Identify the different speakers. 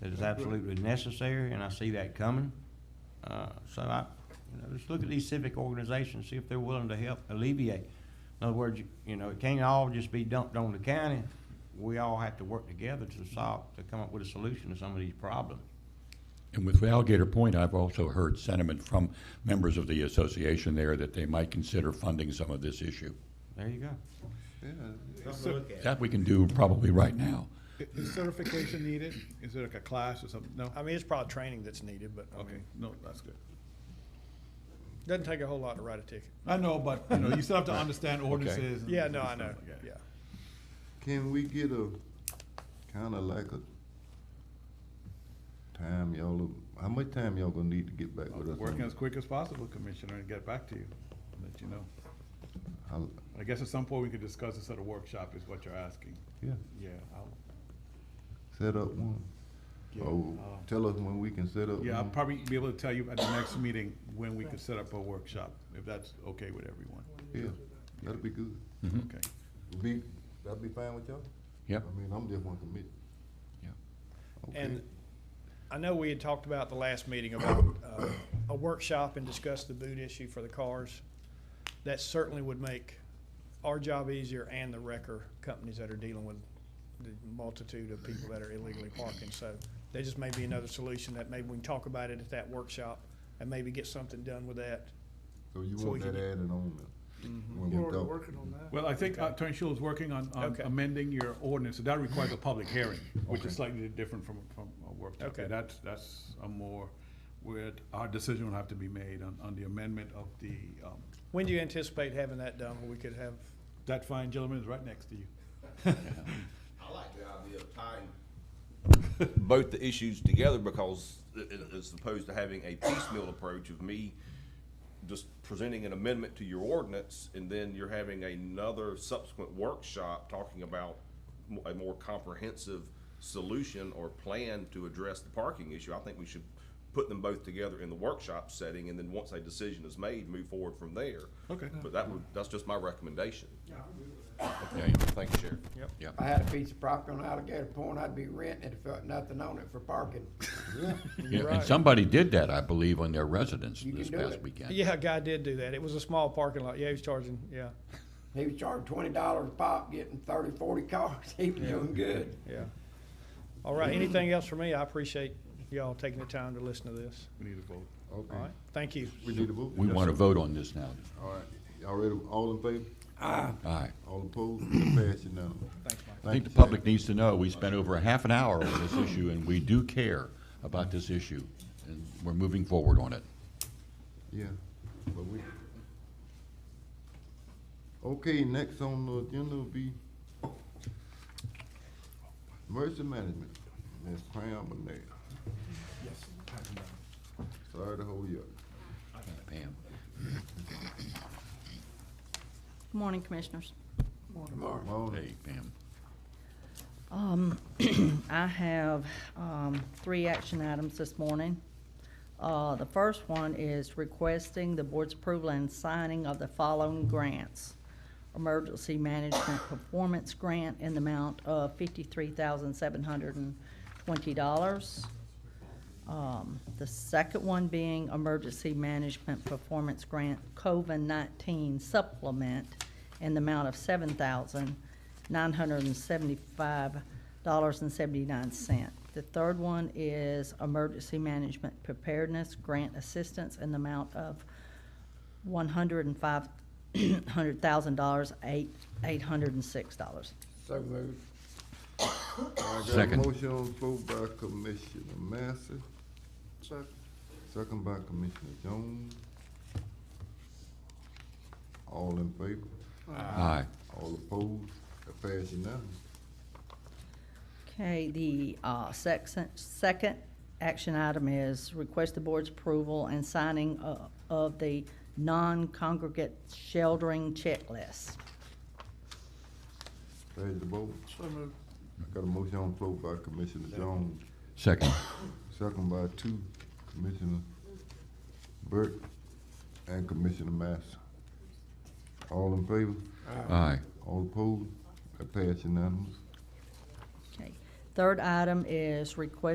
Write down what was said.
Speaker 1: that is absolutely necessary, and I see that coming. Uh, so I, you know, just look at these civic organizations, see if they're willing to help alleviate. In other words, you- you know, it can't all just be dumped on the county. We all have to work together to solve, to come up with a solution to some of these problems.
Speaker 2: And with Alligator Point, I've also heard sentiment from members of the association there that they might consider funding some of this issue.
Speaker 1: There you go.
Speaker 3: Yeah. Is
Speaker 4: to
Speaker 3: cer-
Speaker 4: look at.
Speaker 2: That we can do probably right now.
Speaker 3: is certification needed? Is there like a class or something? No?
Speaker 5: I mean, it's probably training that's needed, but I
Speaker 3: Okay,
Speaker 5: mean,
Speaker 3: no, that's good.
Speaker 5: doesn't take a whole lot to write a ticket.
Speaker 3: I know, but, you know, you still have to understand ordinances. and
Speaker 5: Yeah, no,
Speaker 3: stuff
Speaker 5: I know,
Speaker 3: like that.
Speaker 5: yeah.
Speaker 6: Can we get a, kinda like a time y'all, how much time y'all gonna need to get back with us? on
Speaker 3: Working
Speaker 6: this?
Speaker 3: as quick as possible, Commissioner, and get back to you, let you know.
Speaker 6: How-
Speaker 3: I guess at some point we could discuss this at a workshop is what you're asking.
Speaker 6: Yeah,
Speaker 3: Yeah, I'll,
Speaker 6: set up one. Oh,
Speaker 5: uh,
Speaker 6: tell us when we can set up
Speaker 3: yeah, I'll
Speaker 5: Mm-hmm.
Speaker 6: one.
Speaker 3: probably be able to tell you at the next meeting when we could set up a workshop, if that's okay with everyone.
Speaker 6: Yeah, that'd be good.
Speaker 3: Okay.
Speaker 6: Be, that'd be fine with y'all?
Speaker 2: Yep.
Speaker 6: I mean, I'm just one committee.
Speaker 2: Yeah.
Speaker 6: Okay.
Speaker 5: And I know we had talked about the last meeting about uh, a workshop and discuss the boot issue for the cars. That certainly would make our job easier and the wrecker companies that are dealing with the multitude of people that are illegally parking. So there just may be another solution that maybe we can talk about it at that workshop and maybe get something done with that.
Speaker 6: So you
Speaker 5: so we
Speaker 6: want
Speaker 5: can Mm-hmm.
Speaker 6: that
Speaker 5: get-
Speaker 6: added on there? when we talk?
Speaker 3: Well, I think uh, Attorney Schuler is working on, on
Speaker 5: Okay.
Speaker 3: amending your ordinance, so that requires a public hearing, which
Speaker 6: Okay.
Speaker 3: is slightly different from, from a workshop.
Speaker 5: Okay.
Speaker 3: That's, that's a more, where our decision will have to be made on, on the amendment of the, um,
Speaker 5: When do you anticipate having that done, where we could have,
Speaker 3: that fine gentleman is right next to you.
Speaker 4: I like the idea of tying both the issues together because i- i- as opposed to having a piecemeal approach of me just presenting an amendment to your ordinance and then you're having another subsequent workshop talking about mo- a more comprehensive solution or plan to address the parking issue. I think we should put them both together in the workshop setting and then once a decision is made, move forward from there.
Speaker 3: Okay.
Speaker 4: But that would, that's just my recommendation.
Speaker 2: Yeah, yeah.
Speaker 4: Thank you, Sheriff.
Speaker 2: yeah.
Speaker 7: If I had a piece of property on Alligator Point, I'd be renting it if there was nothing on it for parking.
Speaker 2: Yeah, And somebody did that, I believe, on their residence
Speaker 7: You can
Speaker 2: this
Speaker 7: do
Speaker 2: past
Speaker 7: it.
Speaker 2: weekend.
Speaker 5: yeah, a guy did do that. It was a small parking lot. Yeah, he was charging, yeah,
Speaker 7: He was charging twenty dollars a pop, getting thirty, forty cars, he was doing good.
Speaker 5: yeah. All right, anything else for me? I appreciate y'all taking the time to listen to this.
Speaker 3: We need a vote.
Speaker 5: All
Speaker 6: Okay,
Speaker 5: right, thank you.
Speaker 6: we need a vote?
Speaker 2: We
Speaker 6: Yes,
Speaker 2: want to
Speaker 6: sir.
Speaker 2: vote on this now.
Speaker 6: All right, y'all ready, all in favor?
Speaker 2: Aye.
Speaker 6: All opposed, it passed unanimously.
Speaker 5: Thanks, Mike.
Speaker 2: I think the public needs to know, we spent over a half an hour on this issue, and we do care about this issue, and we're moving forward on it.
Speaker 6: Yeah, but we. Okay, next on the agenda will be emergency management, Ms. Pam Bonet. Sorry to hold you up.
Speaker 2: Pam?
Speaker 8: Good morning, Commissioners.
Speaker 6: Morning.
Speaker 2: Hey, Pam.
Speaker 8: I have um, three action items this morning. Uh, The first one is requesting the board's approval and signing of the following grants. Emergency Management Performance Grant in the amount of fifty-three thousand seven hundred and twenty dollars. Um, The second one being Emergency Management Performance Grant COVID-19 Supplement in the amount of $7,975.79. The third one is Emergency Management Preparedness Grant Assistance in the amount of $105,000, eight- $806.
Speaker 7: So uh, moved.
Speaker 6: I got a
Speaker 2: Second.
Speaker 6: motion on the floor by Commissioner Master. Second. Second by Commissioner Jones. All in favor?
Speaker 2: Aye.
Speaker 6: All opposed? It passed unanimously.
Speaker 8: Okay, the uh, second, second action item is request the board's approval and signing uh, of the non-congregate sheltering checklist.
Speaker 6: Raise the vote. I got a motion on the floor by Commissioner Jones,
Speaker 2: Second.
Speaker 6: second by two, Commissioner Burke and Commissioner Master. All in favor?
Speaker 2: Aye.
Speaker 6: All opposed? That pass unanimous.
Speaker 8: Okay. Third item is request